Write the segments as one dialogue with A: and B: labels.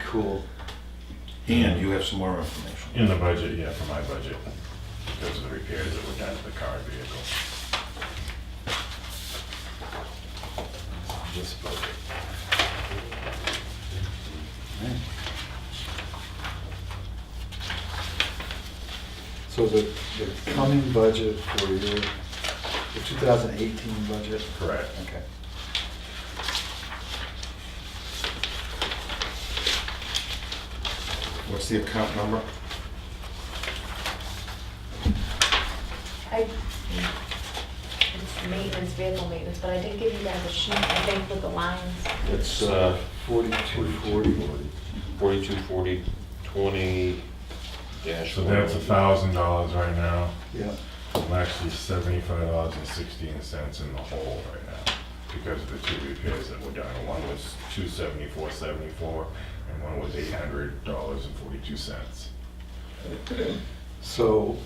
A: cool. And you have some more information.
B: In the budget, yeah, for my budget, because of the repairs that were done to the car and vehicle.
A: This budget.
C: So the, the coming budget for your, the 2018 budget?
B: Correct.
C: Okay.
A: What's the account number?
D: I, it's maintenance, vehicle maintenance, but I did give you guys a sheet, I think, with the lines.
C: It's
E: It's, uh,
C: 4240.
E: 42, 40, 20 dash
B: So that's a
E: one.
B: thousand dollars right now.
C: Yeah,
B: I'm actually seventy-five dollars and sixteen cents in the hole right now because of the two repairs that were done. One was two seventy-four seventy-four and one was eight hundred dollars and forty-two cents.
C: so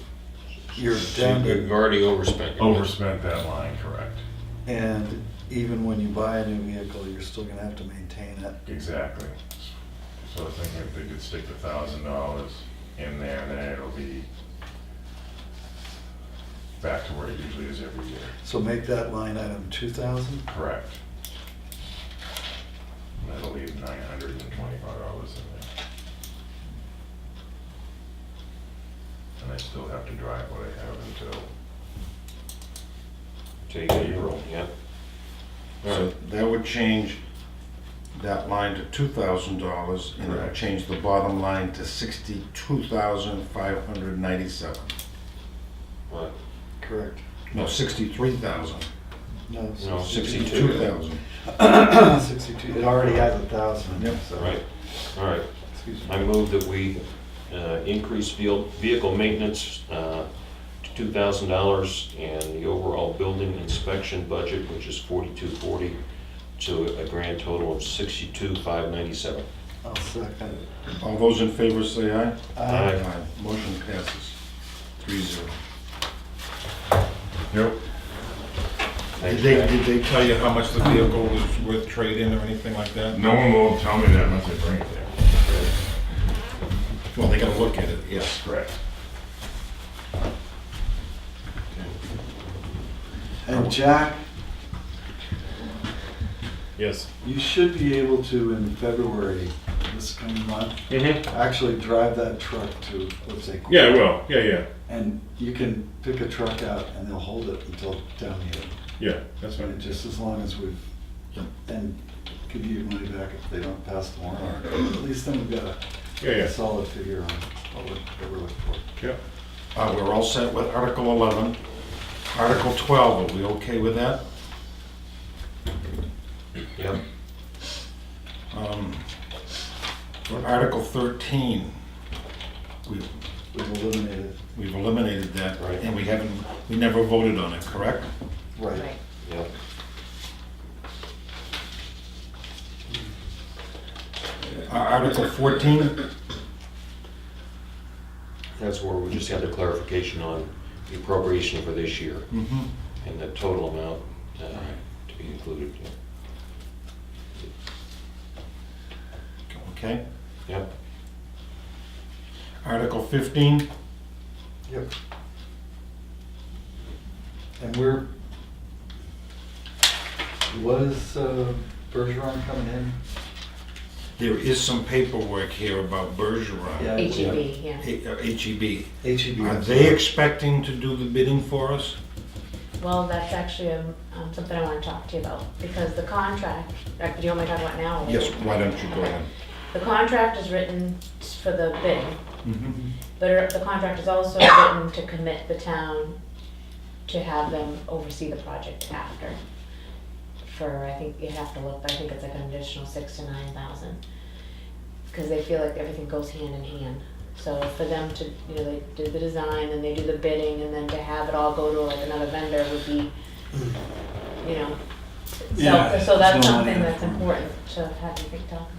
C: you're down
E: You've
C: to,
E: already overspent. your budget.
B: Overspent that line, correct?
C: and even when you buy a new vehicle, you're still gonna have to maintain it.
B: Exactly. So I was thinking if they could stick the thousand dollars in there, then it'll be back to where it usually is every year.
C: So make that line item 2,000?
B: Correct. And That'll leave nine hundred and twenty-five dollars in there. And I still have to drive what I have until,
E: Take a euro, yeah. All
A: So
E: right,
A: that would change that line to two thousand dollars and it would
B: Correct.
A: change the bottom line to sixty-two thousand five hundred ninety-seven.
E: right.
C: Correct.
A: No, sixty-three thousand.
C: No,
B: Oh,
E: No, 62.
A: Sixty-two thousand.
C: 62, it already has a 1,000.
A: Yep.
C: so-
E: All right, all right.
C: Excuse
E: I
C: me.
E: move that we uh, increase veil- vehicle maintenance uh, to $2,000 and the overall building inspection budget, which is 4240, to a grand total of 62,597.
C: I'll second.
A: All those in favor say aye.
C: Uh,
E: Aye.
A: Motion passes three zero.
B: yep,
A: Did
E: Thanks,
A: they,
E: Jack.
A: did they tell you how much the vehicle was worth trade-in or anything like that?
B: no one will tell me that unless I bring it there.
A: Well, they gotta look at it, yes.
B: Correct.
C: And Jack,
B: Yes.
C: you should be able to in February, this coming month,
E: Mm-hmm.
C: actually drive that truck to, let's say.
B: will, yeah, yeah,
C: And you can pick a truck out and they'll hold it until down here,
B: yeah, that's
C: And just as long as we've, and give you money back if they don't pass the warrant article. At least then we've got a solid figure on what we're, what we're looking for.
B: yeah.
A: Uh, we're all set with Article eleven. Article twelve, are we okay with that?
E: Yep.
A: Um, For Article thirteen, we've,
C: We've eliminated,
A: we've eliminated that,
E: Right.
A: and we haven't, we never voted on it, correct?
C: right.
D: Right.
E: Yep.
A: Ar- Article fourteen,
E: That's where we just had the clarification on the appropriation for this year
A: mhm,
E: and the total amount uh, to be included. yeah.
A: okay.
E: Yep,
A: Article fifteen,
C: Yep. And we're, was uh, Bergeron coming in?
A: there is some paperwork here about
C: Yeah.
A: Bergeron,
D: HEB, E yeah.
A: H- uh, HEB.
C: HEB.
A: Are they expecting to do the bidding for us?
D: Well, that's actually um, um, something I want to talk to you about, because the contract, like, do you want me to talk about it now? or-
A: Yes, why don't you go ahead?
D: The contract is written for the bid,
C: Mm-hmm.
A: Mhm.
D: but er, the contract is also written to commit the town to have them oversee the project after. For, I think, you have to look, but I think it's like an additional six to nine thousand. Because they feel like everything goes hand in hand. So for them to, you know, they do the design, then they do the bidding, and then to have it all go to like another vendor would be, you know.
C: Yeah,
D: So, so that's
C: it's no money
D: something that's
C: upfront.
D: important to have you think talk about it.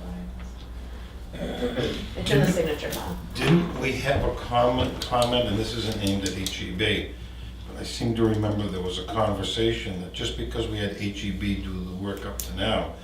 D: It's in the signature file.
A: Didn't we have a comment, comment, and this isn't aimed at HEB, but I E seem to remember there was a conversation that just because we had HEB do the work up to now,